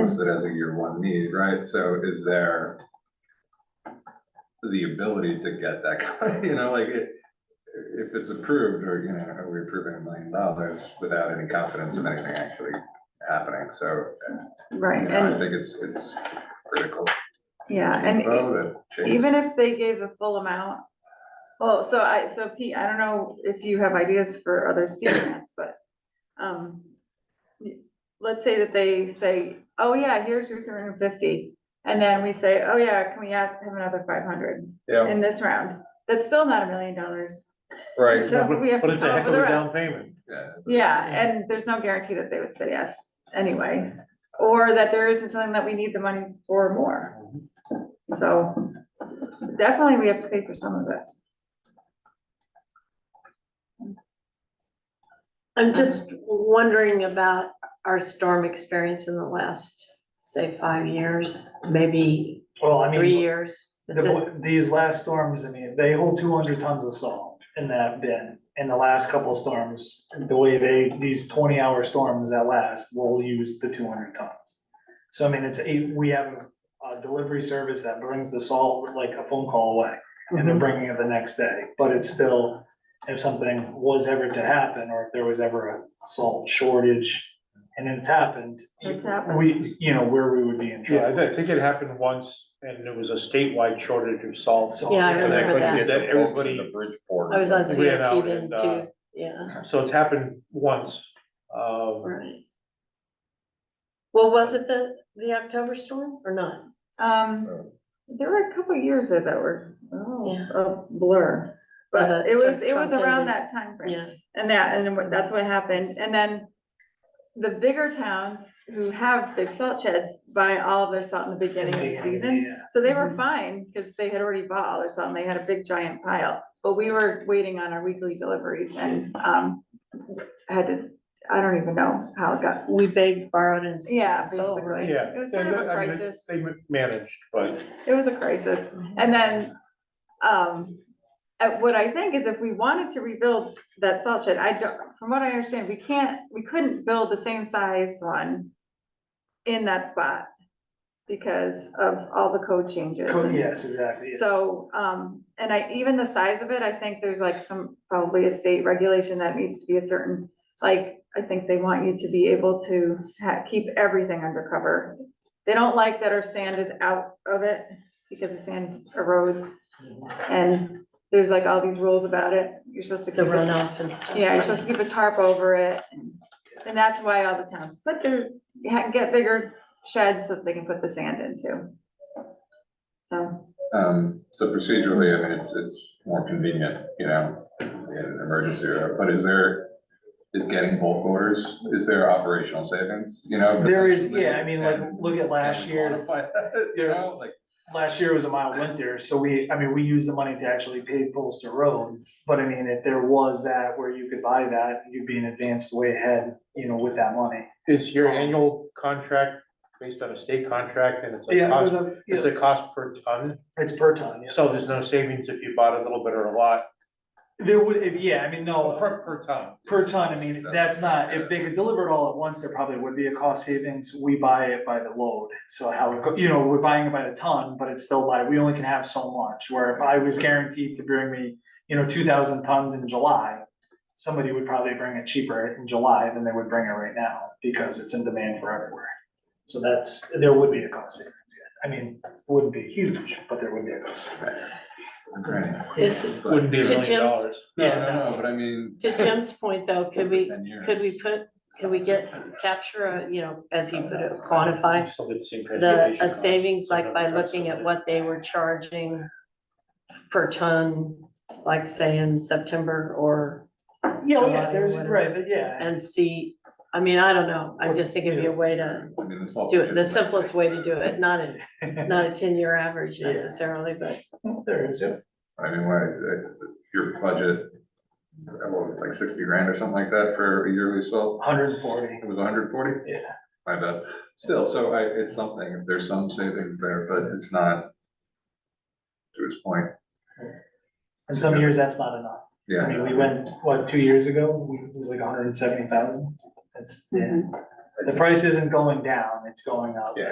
listed as a year one need, right? So is there the ability to get that, kind- you know, like, it- if it's approved, or, you know, are we approving a million dollars without any confidence of anything actually happening? So, you Right, know, I and, think it's, it's critical. yeah, and e- even Even if they gave the full amount, well, so I, so Pete, I don't know if you have ideas for other STEAM grants, but, um, let's say that they say, oh yeah, here's your three hundred and fifty, and then we say, oh yeah, can we ask him another five hundred Yeah, in this round? That's still not a million dollars, right, so we have But to it's a come heck for of the a down rest. payment. yeah, Yeah, and there's no guarantee that they would say yes anyway, or that there isn't something that we need the money for more. Mm-hmm. So definitely we have to pay for some of it. Uh-huh. I'm just wondering about our storm experience in the last, say, five years, maybe Well, I three mean, years. Is it- the- these last storms, I mean, they hold two hundred tons of salt in that bin. In the last couple of storms, the way they, these twenty-hour storms that last will use the two hundred tons. So I mean, it's eight, we have a delivery service that brings the salt like a phone call away, and Mm-hmm. Mhm. they're bringing it the next day. But it's still, if something was ever to happen, or if there was ever a salt shortage, and it's happened, It's happened. we, you know, where we would be in Yeah, I trouble. thi- I think it happened once and it was a statewide shortage of salt. So- Yeah, I And remember couldn't that. get That everybody- everybody, Bridgeport. I was on We had CIP out then and, uh, too, yeah, So it's happened once. uh, Um, right. Well, was it the, the October storm or not? Um, there were a couple of years there that were, Yeah. oh, a blur. Uh, But it sort was, of it was Trump around ended. that time frame, Yeah, And that, and what- that's what happened. And then the bigger towns who have big salt sheds buy all of their salt in the beginning of the season. Yeah. So they were Mhm. fine because they had already bought all their salt and they had a big giant pile. But we were waiting on our weekly deliveries and, um, had to, I don't even know how it got. we begged, borrowed and. Yeah, stole, right? basically. yeah. It was sort of a I mean, crisis. They ma- managed, but It was a crisis. And then, um, uh, what I think is if we wanted to rebuild that salt shed, I don't, from what I understand, we can't, we couldn't build the same size one in that spot because of all the code changes. Co- and- Yes, exactly. yes. So, um, and I, even the size of it, I think there's like some, probably a state regulation that needs to be a certain, like, I think they want you to be able to ha- keep everything undercover. They don't like that our sand is out of it because the sand erodes and there's like all these rules about it. You're supposed to The keep it. runoff and stuff. Yeah, you're supposed to keep a tarp over it. and- And that's why all the towns put their, ha- get bigger sheds so that they can put the sand into. So. Um, so procedurally, I mean, it's, it's more convenient, you know, in an emergency, or- but is there, is getting bulk orders, is there operational savings, you know? There is, yeah, I mean, like, And look at last can we year, quantify that, You know, like, last year was a mild winter, so we, I mean, we used the money to actually pave Polster Road. But I mean, if there was that where you could buy that, you'd be in advance way ahead, you know, with that money. it's your annual contract based on a state contract and it's a Yeah, it was cost, a- it's yeah, a cost per ton. it's per ton, yeah. So there's no savings if you bought a little bit or a lot. There would, if- yeah, I mean, Oh, no, Per, per ton. per ton, I mean, that's not, if they could deliver it all at once, there probably would be a cost savings. We buy it by the load. So how, it go- you know, we're buying it by the ton, but it's still by, we only can have so much, where if I was guaranteed to bring me, you know, two thousand tons in July, somebody would probably bring it cheaper in July than they would bring it right now, because it's in demand for everywhere. So that's, there would be a cost savings, yeah. I mean, wouldn't be huge, but there would be a cost savings. right. Is, But- Wouldn't be a To million Jim's- dollars. No, no, no, but I mean. to Jim's point though, could we, Ten years. could we put, could we get, capture, a you know, as he put it, quantify Still get the same the, transportation a costs, savings, like by another price looking of at it. what they were charging per ton, like say in September or, Yeah, oh, July yeah, or there's, whatever. right, but yeah. and see, I mean, I don't know, I just think it'd be a way to I mean, the salt. do it, the simplest way to do it, not a, not a ten-year average Yeah. necessarily, but There is, yeah. I mean, why, uh, your budget, uh, what was it, like sixty grand or something like that for a yearly salt? Hundred and forty. It was hundred forty? Yeah. My bad. Still, so I, it's something, there's some savings there, but it's not to his point, And some years, that's not enough. I yeah. mean, we went, what, two years ago, we- it was like hundred and seventy thousand? That's, yeah. the price isn't going down, it's going up. Yeah.